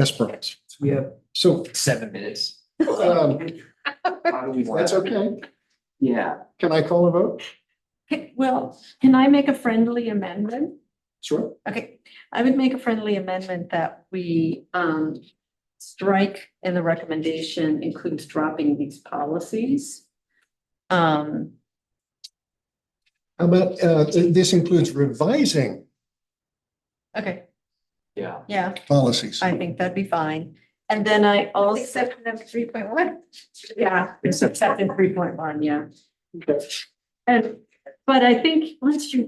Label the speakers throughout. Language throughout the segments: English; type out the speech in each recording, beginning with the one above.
Speaker 1: Yes, Brian.
Speaker 2: We have
Speaker 1: So,
Speaker 2: seven minutes.
Speaker 1: um,
Speaker 2: How do we want-
Speaker 1: that's okay.
Speaker 2: Yeah,
Speaker 1: Can I call a vote?
Speaker 3: Okay, Well, can I make a friendly amendment?
Speaker 1: Sure.
Speaker 3: Okay, I would make a friendly amendment that we um strike and the recommendation includes dropping these policies. Um,
Speaker 1: How about, uh, th- this includes revising
Speaker 3: okay,
Speaker 2: yeah.
Speaker 3: yeah,
Speaker 1: policies?
Speaker 3: I think that'd be fine. And then I also,
Speaker 4: Except for number three point one.
Speaker 3: yeah, it's except in three point one, yeah.
Speaker 1: Okay.
Speaker 3: And, but I think once you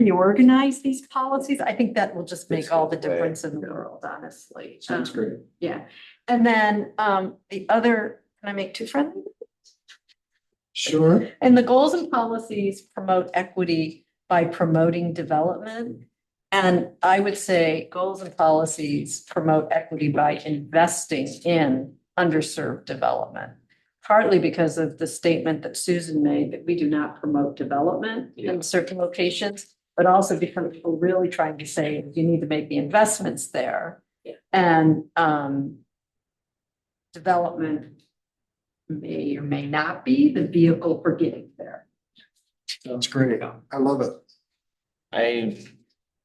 Speaker 3: reorganize these policies, I think that will just make all the difference in the world, honestly.
Speaker 2: Sounds
Speaker 3: Um,
Speaker 2: great.
Speaker 3: Yeah, and then um the other, can I make two friendly?
Speaker 1: Sure.
Speaker 3: And the goals and policies promote equity by promoting development. And I would say goals and policies promote equity by investing in underserved development. Partly because of the statement that Susan made that we do not promote development
Speaker 2: Yeah.
Speaker 3: in certain locations. But also because we're really trying to say you need to make the investments there.
Speaker 4: Yeah.
Speaker 3: And um. Development may or may not be the vehicle for getting there.
Speaker 1: Sounds great. I love it.
Speaker 5: I,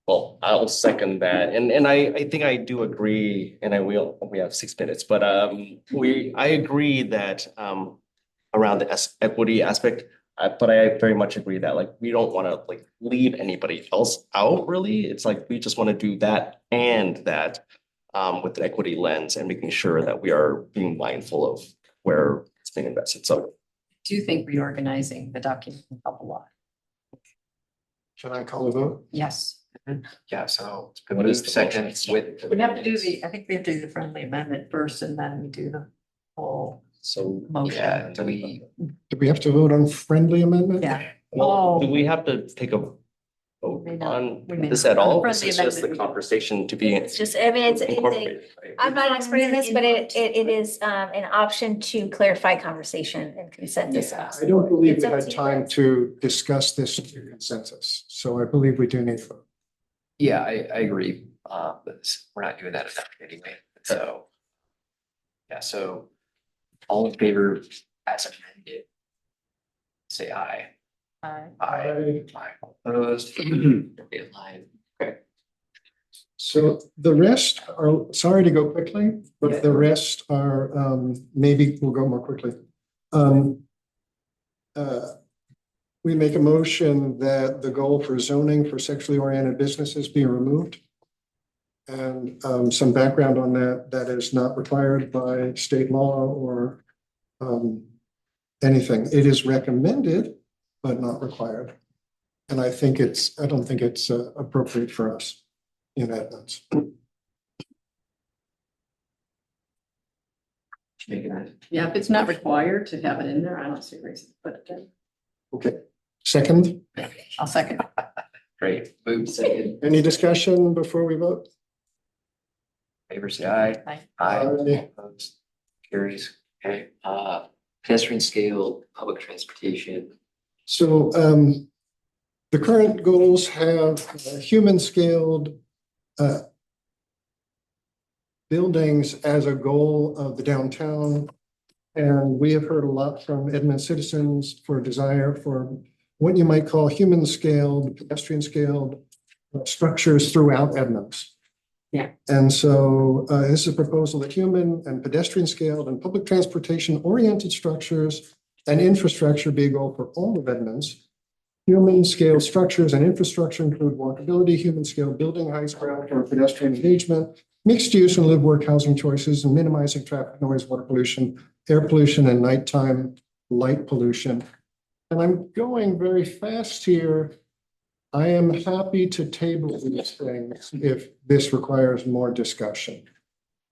Speaker 5: well, I'll second that, and, and I, I think I do agree, and I will, we have six minutes, but, um, we, I agree that, um, around the es- equity aspect, uh, but I very much agree that, like, we don't wanna, like, leave anybody else out, really, it's like, we just wanna do that and that, um, with an equity lens and making sure that we are being mindful of where it's being invested, so,
Speaker 3: Do you think reorganizing the document can help a lot?
Speaker 1: Can I call a vote?
Speaker 3: Yes.
Speaker 2: Yeah, so it's
Speaker 5: What
Speaker 2: been
Speaker 5: is the
Speaker 2: seconds with.
Speaker 3: We have to do the, I think we have to do the friendly amendment first and then we do the whole
Speaker 5: so.
Speaker 2: Yeah,
Speaker 3: motion.
Speaker 2: do we,
Speaker 1: Do we have to vote on friendly amendment?
Speaker 3: Yeah.
Speaker 5: Well, do
Speaker 3: Oh.
Speaker 5: we have to take a vote
Speaker 3: May not.
Speaker 5: on
Speaker 3: We may
Speaker 5: this
Speaker 3: not.
Speaker 5: at all?
Speaker 3: Friendly
Speaker 5: This is just the
Speaker 3: amendment.
Speaker 5: conversation to be
Speaker 4: It's just, I mean, it's, it's a,
Speaker 5: incorporated. right?
Speaker 4: I'm not an expert in this, but it, it, it is, um, an option to clarify conversation and consensus.
Speaker 2: Yeah.
Speaker 1: I don't believe
Speaker 4: It's
Speaker 1: we
Speaker 4: up
Speaker 1: had
Speaker 4: to you
Speaker 1: time
Speaker 4: guys.
Speaker 1: to discuss this through consensus, so I believe we do need. to vote.
Speaker 2: yeah, I, I agree, uh, but it's- we're not doing that enough anyway, so. Yeah, so all in favor as amended. Say aye.
Speaker 3: Aye.
Speaker 2: Aye. Aye. Opposed. In line.
Speaker 1: So the rest are, sorry to go quickly, but the rest are, um, maybe we'll go more quickly. Um. uh, We make a motion that the goal for zoning for sexually oriented businesses be removed. And, um, some background on that, that is not required by state law or, um. Anything, it is recommended, but not required. And I think it's, I don't think it's uh, appropriate for us in Edmonds.
Speaker 2: Making that.
Speaker 3: Yeah, if it's not required to have it in there, I don't see a reason, but
Speaker 1: Okay, second,
Speaker 3: I'll second.
Speaker 2: Great, move second,
Speaker 1: any discussion before we vote?
Speaker 2: favor say aye.
Speaker 3: Aye.
Speaker 1: Aye.
Speaker 2: Opposed? Carries, okay, uh, pedestrian scale, public transportation,
Speaker 1: So um, the current goals have human scaled uh, buildings as a goal of the downtown. And we have heard a lot from Edmund citizens for a desire for what you might call human scaled, pedestrian scaled structures throughout Edmonds.
Speaker 3: Yeah.
Speaker 1: And so uh, this is a proposal that human and pedestrian scaled and public transportation oriented structures and infrastructure be a goal for all of Edmonds. Human scale structures and infrastructure include walkability, human scale building heights, ground floor pedestrian engagement, mixed use and live work housing choices, and minimizing traffic noise, water pollution, air pollution, and nighttime light pollution. And I'm going very fast here. I am happy to table these things if this requires more discussion.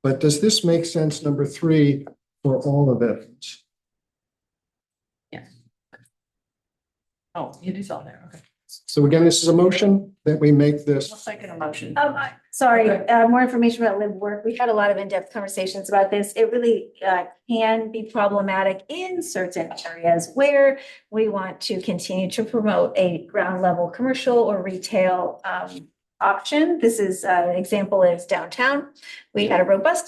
Speaker 1: But does this make sense, number three, for all of Edmonds?
Speaker 3: Oh, it is on there, okay.
Speaker 1: So again, this is a motion that we make this.
Speaker 3: I'll second a motion.
Speaker 4: Um, I- sorry,
Speaker 3: Okay.
Speaker 4: uh, more information about live work. We've had a lot of in-depth conversations about this. It really, uh, can be problematic in certain areas where we want to continue to promote a ground level commercial or retail, um, option. This is, uh, an example is downtown. We had a robust